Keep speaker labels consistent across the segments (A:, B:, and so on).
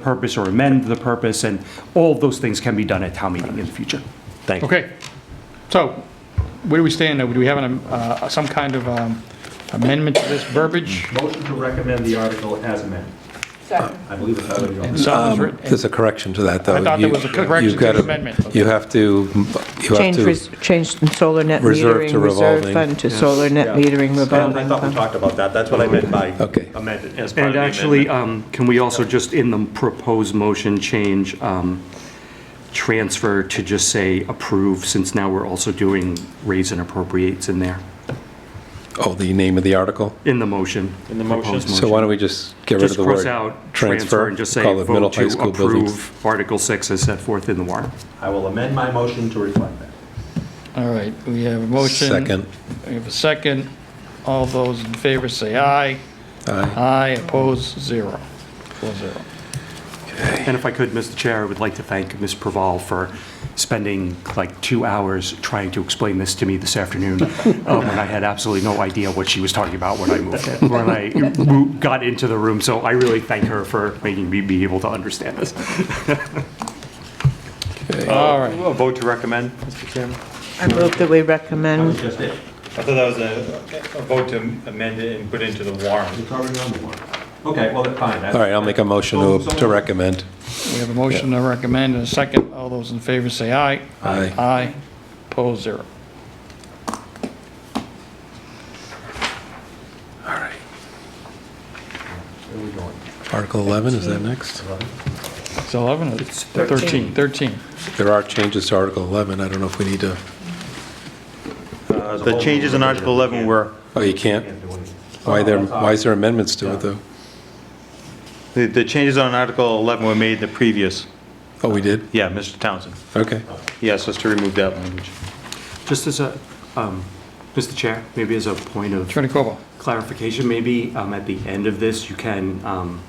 A: purpose or amend the purpose, and all of those things can be done at town meeting in the future.
B: Thank you.
C: Okay, so where do we stand? now? Do we have an, uh, some kind of um, amendment to this
D: Mm.
C: verbiage?
E: Motion to recommend the article as amended.
F: Second.
E: I believe it's how it
C: So it was written-
D: There's a correction to that, though.
C: I thought there
D: You-
C: was a correction
D: you've got
C: to the amendment.
D: You have to, you have
F: Change,
D: to,
F: res- change from solar net
D: Reserve
F: metering
D: to
F: reserve
D: revolving.
F: fund to solar net metering
B: And I
F: revolving
B: thought we
F: fund.
B: talked about that. That's what I meant by
D: Okay.
B: amended, as part of
G: And
B: the
G: actually, um,
B: amendment.
G: can we also just, in the proposed motion, change um, transfer to just say approve, since now we're also doing raise and appropriates in there,
D: oh, the name of the article?
G: in the motion? In the motion.
D: So why don't we just get rid of
G: Just
D: the word?
G: cross out transfer and just say
D: Call it middle
G: vote
D: high
G: to
D: school buildings.
G: approve Article 6 as set forth in the warrant.
E: I will amend my motion to reflect that.
C: All right, we have a motion.
D: Second.
C: We have a second. All those in favor say aye. Aye, opposed, zero. Four zero.
G: And if I could, Mr. Chair, I would like to thank Ms. Praval for spending like two hours trying to explain this to me this afternoon, um, when I had absolutely no idea what she was talking about when I moved in, when I mo- got into the room. So I really thank her for making me be able to understand this.
C: All right,
B: A vote to recommend, Mr. Chairman?
F: I move that we
E: That's
F: recommend,
E: just it.
H: I thought that was a, a vote to amend it and put into the warrant.
E: It's already on the warrant. Okay, well, then, fine.
D: All right, I'll make a motion to, to recommend.
C: we have a motion to recommend and a second. All those in favor say aye.
D: Aye.
C: Aye, opposed, zero.
D: Article 11, is that next?
C: It's 11 or 13? 13.
D: There are changes to Article 11, I don't know if we need to,
B: Uh, The changes in Article 11 were,
D: oh, you can't? Why there, why is there amendments to it, though?
B: the- the changes on Article 11 were made the previous,
D: Oh, we did?
B: yeah, Mr. Townsend.
D: Okay.
B: He asked us to remove that language.
G: Just as a, um, Mr. Chair, maybe as a point of
C: Attorney Corbo.
G: clarification, maybe um, at the end of this, you can um,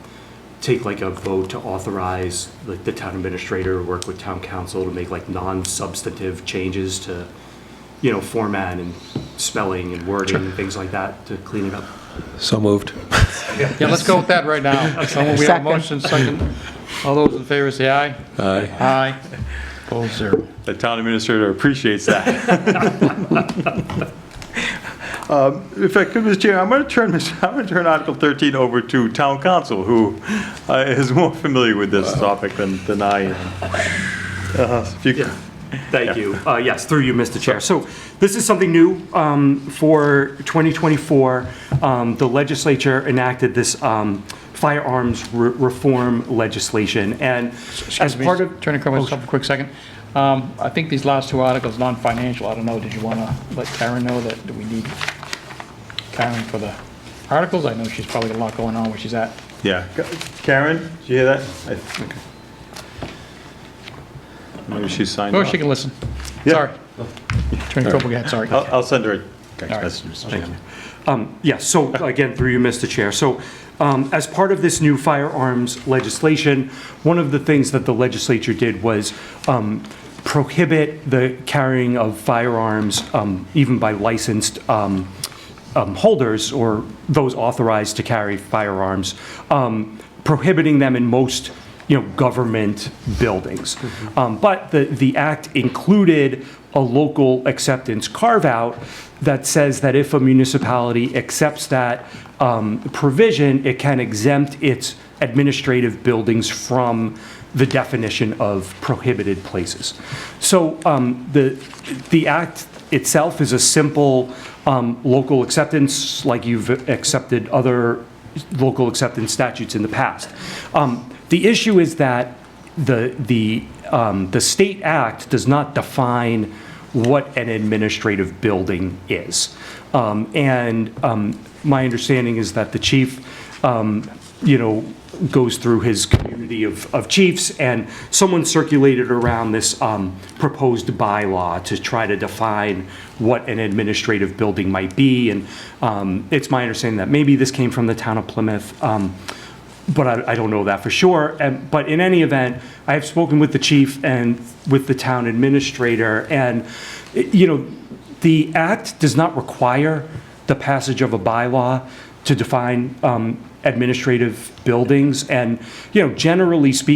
G: take like a vote to authorize like the town administrator, work with town council to make like non-substantive changes to, you know, format and spelling and wording and things like that to clean it up.
D: So moved.
C: Yeah, let's go with that right now. Someone- We have a
F: Second.
C: motion, second. All those in favor say aye.
D: Aye.
C: Aye, opposed, zero.
B: The town administrator appreciates that. Um, If I could, Mr. Chair, I'm going to turn, this- I'm going to turn Article 13 over to town council, who uh, is more familiar with this topic than, than I am. Uh, if you-
G: Thank you. Uh, Yes, through you, Mr. Chair. So this is something new um, for 2024. Um, The legislature enacted this um, firearms re- reform legislation, and as
C: Excuse me,
G: part of...
C: Attorney Corbo, just a quick second. Um, I think these last two articles, non-financial, I don't know, did you want to let Karen know that we need Karen for the articles? I know she's probably got a lot going on where she's at.
B: Yeah. Karen, did you hear that? I- Maybe she signed
C: Oh,
B: off.
C: she can listen.
B: Yeah.
C: Sorry. Attorney Corbo, go ahead, sorry.
B: I'll, I'll send her a text
C: right.
B: message. Mr. Chairman.
G: Um, Yes, so again, through you, Mr. Chair. So um, as part of this new firearms legislation, one of the things that the legislature did was um, prohibit the carrying of firearms um, even by licensed um, um, holders or those authorized to carry firearms, um, prohibiting them in most you know, government buildings. Um, But the, the act included a local acceptance carve-out that says that if a municipality accepts that um, provision, it can exempt its administrative buildings from the definition of prohibited places. So um, the, the act itself is a simple um, local acceptance, like you've accepted other local acceptance statutes in the past. Um, The issue is that the, the, um, the state act does not define what an administrative building is. Um, And um, my understanding is that the chief, um, you know, goes through his community of, of chiefs, and someone circulated around this um, proposed bylaw to try to define what an administrative building might be, and um, it's my understanding that maybe this came from the town of Plymouth. um, but I, I don't know that for sure. And, but in any event, I have spoken with the chief and with the town administrator, and, eh, you know, the act does not require the passage of a bylaw to define um, administrative buildings. And, you know, generally speaking,